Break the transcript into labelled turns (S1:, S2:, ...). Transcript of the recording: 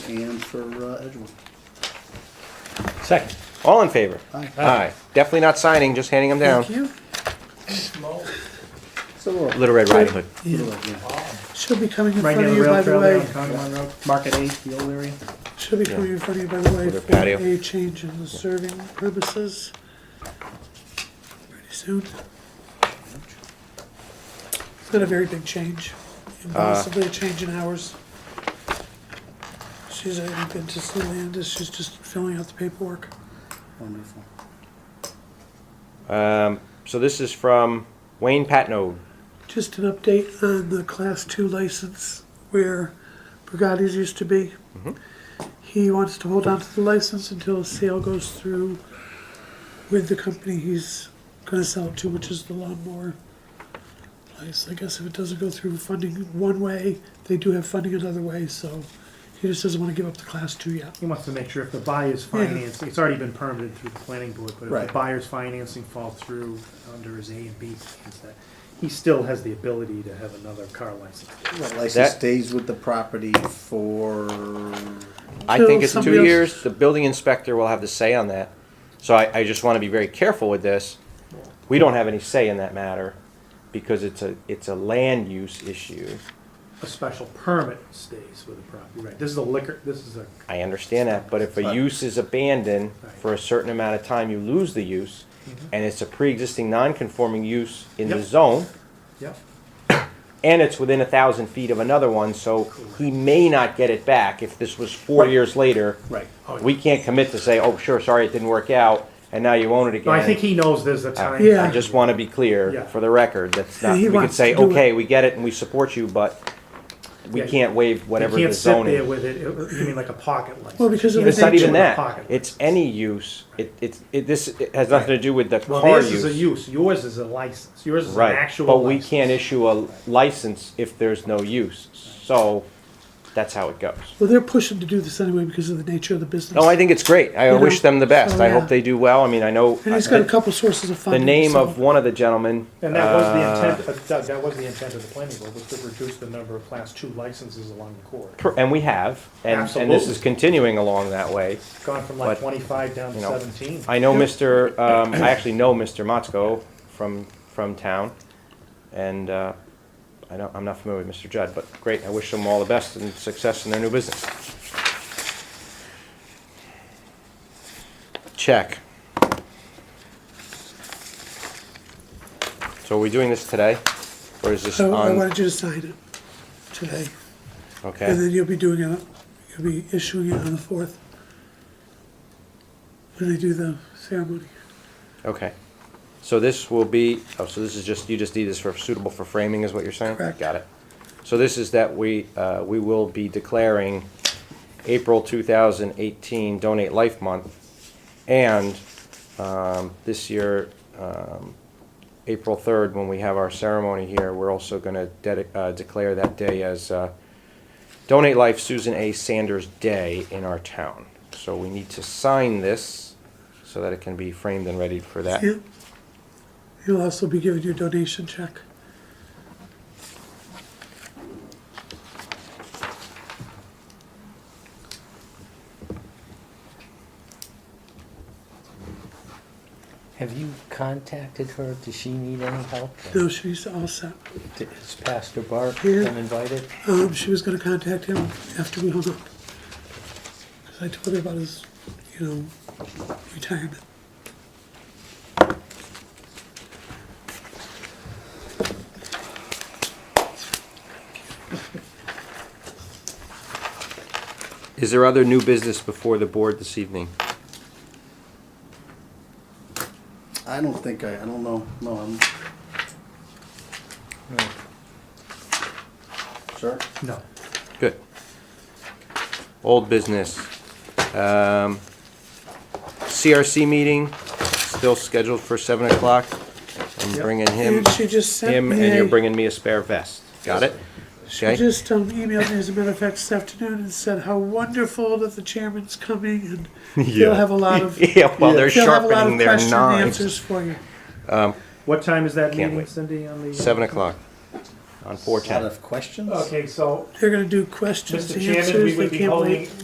S1: and for uh, Edgewood.
S2: Second.
S3: All in favor?
S1: Aye.
S3: Aye. Definitely not signing, just handing them down.
S1: Thank you. So, uh,
S3: Little Red Riding Hood.
S4: She'll be coming in
S1: Right
S4: front
S1: near
S4: of
S1: the rail trail
S4: you, by the
S1: there
S4: way.
S1: on Congamon Road, Market Eight, the old area.
S4: She'll be coming in front of you, by the way,
S3: their
S4: for
S3: patio.
S4: a change in the serving purposes. Pretty soon. It's been a very big change, and possibly a change in hours. She's already been to Sealand, she's just filling out the paperwork.
S1: Wonderful.
S3: So this is from Wayne Patno.
S4: Just an update on the Class 2 license where Bugatti's used to be.
S3: Mm-hmm.
S4: He wants to hold on to the license until a sale goes through with the company he's going to sell it to, which is the lawnmower place. I guess if it doesn't go through funding one way, they do have funding another way, so he just doesn't want to give up the Class 2 yet.
S5: He wants to make sure if the buyer's financing, it's already been permitted through the planning board, but if
S1: Right.
S5: the buyer's financing falls through under his A and B, plans, that he still has the ability to have another car license.
S1: That license
S3: That-
S1: stays with the property for,
S3: I
S4: So
S3: think it's
S4: somebody
S3: two
S4: else-
S3: years. The building inspector will have the say on that. So I, I just want to be very careful with this. We don't have any say in that matter because it's a, it's a land use issue.
S5: A special permit stays with the property, right? This is a liquor, this is a,
S3: I understand that, but if a use is abandoned for a certain amount of time, you lose the use. And it's a pre-existing non-conforming use in the
S5: Yep.
S3: zone.
S5: yep,
S3: and it's within a thousand feet of another one, so he may not get it back if this was four years later.
S5: right. Oh, yeah.
S3: We can't commit to say, oh, sure, sorry, it didn't work out, and now you own it again.
S5: No, I think he knows there's a time.
S4: Yeah.
S3: I just want to be
S5: Yeah.
S3: clear, for the record, that's not,
S4: he
S3: we could
S4: wants
S3: say,
S4: to do it.
S3: okay, we get it and we support you, but we
S5: Yeah,
S3: can't waive
S5: You
S3: whatever the
S5: can't sit
S3: zoning.
S5: there with it, It- you mean like a pocket
S4: Well,
S5: license?
S4: because of
S3: It's
S4: the
S3: not even
S4: nature,
S3: that,
S5: Pocket.
S3: it's any use, it, it's, it, this, it has nothing to do with the
S5: Well,
S3: car
S5: theirs is a
S3: use.
S5: use, yours is a license, yours is an
S3: Right,
S5: actual
S3: but we
S5: license.
S3: can't issue a license if there's no use, so that's how it goes.
S4: well, they're pushing to do this anyway because of the nature of the business.
S3: No, I think it's great. I
S4: You know,
S3: wish them the best.
S4: so,
S3: I
S4: yeah.
S3: hope they do well. I mean, I know
S4: And he's got a
S3: the,
S4: couple sources of funding.
S3: name
S4: so-
S3: of one of the gentlemen.
S5: And that was
S3: uh,
S5: the intent, but Doug, that was the intent of the planning board, was to reduce the number of class two licenses along the corridor.
S3: per- And we have, and, and this
S5: Absolutely.
S3: is continuing along that way.
S5: Gone from like
S3: But,
S5: twenty-five down to
S3: you know,
S5: seventeen.
S3: I know Mr. Um, I actually know Mr. Motzko from from town, and uh, I don't, I'm not familiar with Mr. Judd, but great. I wish them all the best and success in their new business. Check. So are we doing this today, or is this
S4: So I
S3: on?
S4: wanted you to sign it today, and
S3: Okay.
S4: then you'll be doing it, you'll be issuing it on the fourth. When they do the ceremony.
S3: Okay. So this will be, oh, so this is just, you just need this for suitable for framing is what you're saying?
S4: Correct.
S3: Got it. So this is that we, uh, we will be declaring April 2018 Donate Life Month and um, this year, um, April 3rd, when we have our ceremony here, we're also going to declare that day as uh, Donate Life Susan A. Sanders Day in our town. So we need to sign this so that it can be framed and ready for that.
S4: Yeah. You'll also be given your donation check.
S6: Have you contacted her? Does she need any help?
S4: No, she's all set.
S6: Has Pastor Bart
S4: Yeah.
S6: been invited?
S4: Um, she was gonna contact him after we hung up. Cause I told her about his, you know, retirement.
S3: Is there other new business before the board this evening?
S1: I don't think I, I don't know, no, I'm. Sir?
S5: No.
S3: Good. Old business. Um, CRC meeting, still scheduled for seven o'clock. I'm bringing him,
S4: And she just sent
S3: him,
S4: me
S3: and
S4: a-
S3: you're bringing me a spare vest. Got it?
S4: She
S3: Okay,
S4: just um, emailed me, as a matter of fact, this afternoon and said how wonderful that the chairman's coming and they'll
S3: Yeah.
S4: have a lot of
S3: Yeah, well, they're
S4: they'll have a lot
S3: sharpening
S4: of
S3: their
S4: question and
S3: knives.
S4: answers for you.
S5: What time is that
S3: Can't
S5: meeting,
S3: wait.
S5: Cindy, on the? uh?
S3: seven o'clock on four
S1: Out
S3: ten.
S1: of questions?
S5: Okay, so,
S4: They're going to do questions
S5: Mr.
S4: and
S5: Chairman, we
S4: answers. They
S5: would be
S4: can't
S5: holding
S4: wait.